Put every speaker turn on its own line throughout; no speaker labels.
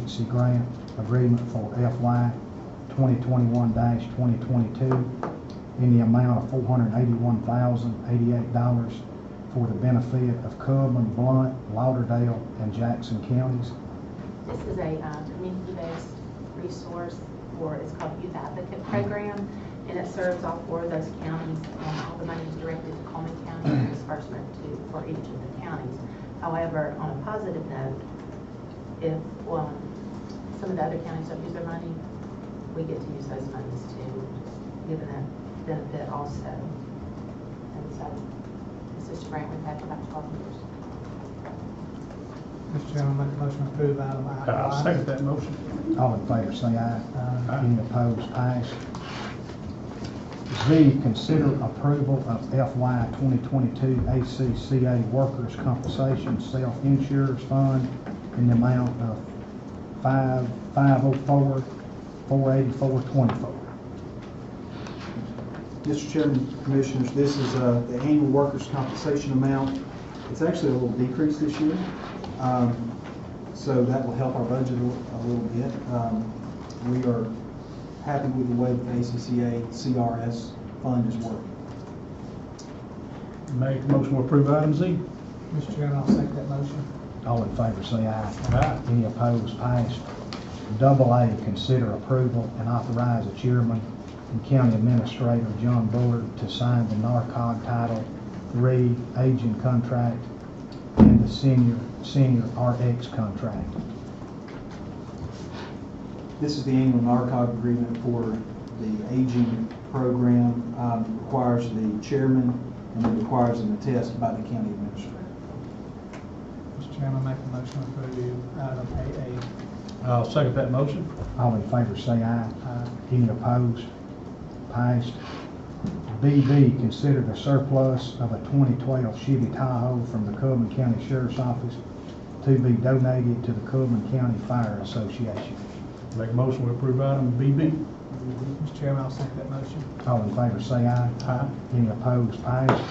Agency Grant Agreement for FY 2021-2022 in the amount of $481,088 for the benefit of Coleman, Blunt, Lauderdale, and Jackson counties.
This is a uh, community-based resource for, it's called Youth Advocate Program, and it serves all four of those counties. Um, All the money is directed to Coleman County and disbursement to, for each of the counties. However, on a positive note, if um, some of the other counties don't use their money, we get to use those monies too, given that benefit also. And so, this is a grant we've had for about 12 years.
Mr. Chairman, make a motion to approve item I.
I second that motion.
All in favor, say aye.
Uh,
Any opposed, pass. Z, consider approval of FY 2022 ACCA Workers' Compensation Self-Insurance Fund in the amount of five five oh four four eighty four twenty four.
Mr. Chairman, Commissioners, this is uh, the annual workers' compensation amount. It's actually a little decrease this year, Um, so that will help our budget a li- a little bit. Um, We are happy with the way that the ACCA CRS fund is working.
Make a motion to approve item Z.
Mr. Chairman, I'll second that motion.
All in favor, say aye.
Aye.
Any opposed, passed. Double A, consider approval and authorize the chairman and county administrator, John Bullard, to sign the NARCOG Title III agent contract and the senior, senior RX contract.
This is the annual NARCOG agreement for the aging program, Um, It requires the chairman and it requires an attest by the county administrator.
Mr. Chairman, make a motion to approve item AA.
I'll second that motion.
All in favor, say aye.
Uh,
Any opposed? Passed. BB, consider the surplus of a 2012 Chevy Tahoe from the Coleman County Sheriff's Office to be donated to the Coleman County Fire Association.
Make a motion to approve item BB.
Mr. Chairman, I'll second that motion.
All in favor, say aye.
Aye.
Any opposed, passed.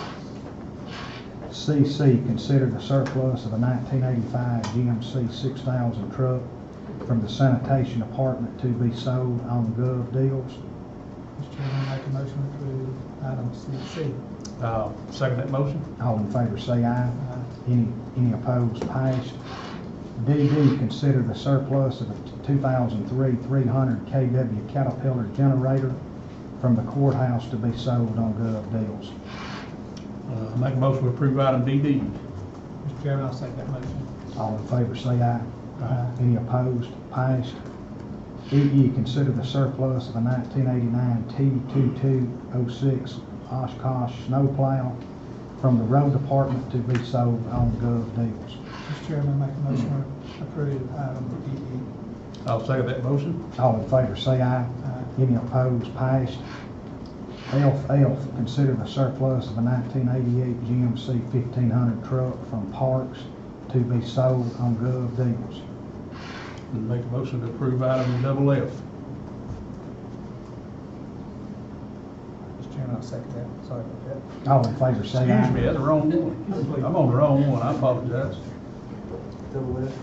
CC, consider the surplus of a 1985 GMC 6000 truck from the sanitation department to be sold on gov deals.
Mr. Chairman, make a motion to approve item CC.
I'll second that motion.
All in favor, say aye.
Uh,
Any, any opposed, passed. DD, consider the surplus of a 2003 300 KW Caterpillar generator from the courthouse to be sold on gov deals.
Uh, Make a motion to approve item DD.
Mr. Chairman, I'll second that motion.
All in favor, say aye.
Aye.
Any opposed? Passed. EE, consider the surplus of a 1989 T2206 Oshkosh snowplow from the road department to be sold on gov deals.
Mr. Chairman, make a motion to approve item E.
I'll second that motion.
All in favor, say aye.
EE. Uh,
Any opposed? Passed. F, F, consider the surplus of a 1988 GMC 1500 truck from Parks to be sold on gov deals.
Make a motion to approve item double F.
Mr. Chairman, I'll second that. Sorry about that.
All in favor, say aye.
Excuse me, that's the wrong one. I'm on the wrong one, I apologize.
Double F?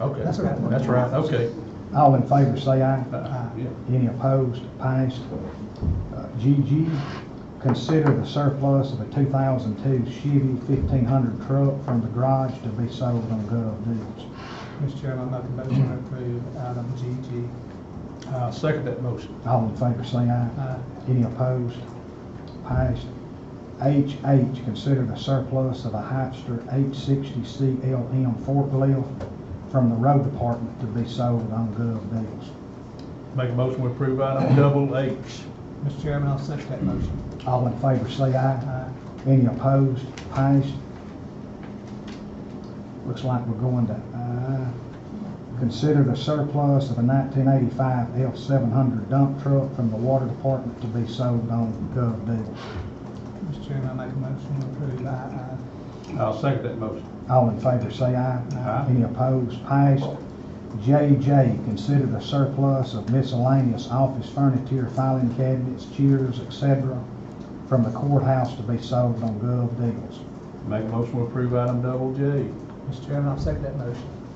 Okay.
That's all right.
That's right, okay.
All in favor, say aye.
Uh, yeah.
Any opposed, passed. Uh, GG, consider the surplus of a 2002 Chevy 1500 truck from the garage to be sold on gov deals.
Mr. Chairman, I make a motion to approve item uh, GG.
I'll second that motion.
All in favor, say aye.
Uh,
Any opposed, passed. HH, consider the surplus of a Hyster 860 CLM forklift from the road department to be sold on gov deals.
Make a motion to approve item double H.
Mr. Chairman, I'll second that motion.
All in favor, say aye.
Uh,
Any opposed, passed? Looks like we're going to, uh, consider the surplus of a 1985 F700 dump truck from the water department to be sold on gov deals.
Mr. Chairman, I make a motion to approve Uh, I,
I'll second that motion.
All in favor, say aye.
Aye.
Any opposed, passed? JJ, consider the surplus of miscellaneous office furniture, filing cabinets, chairs, etc., from the courthouse to be sold on gov deals.
Make a motion to approve item double J.
Mr. Chairman, I'll second that motion.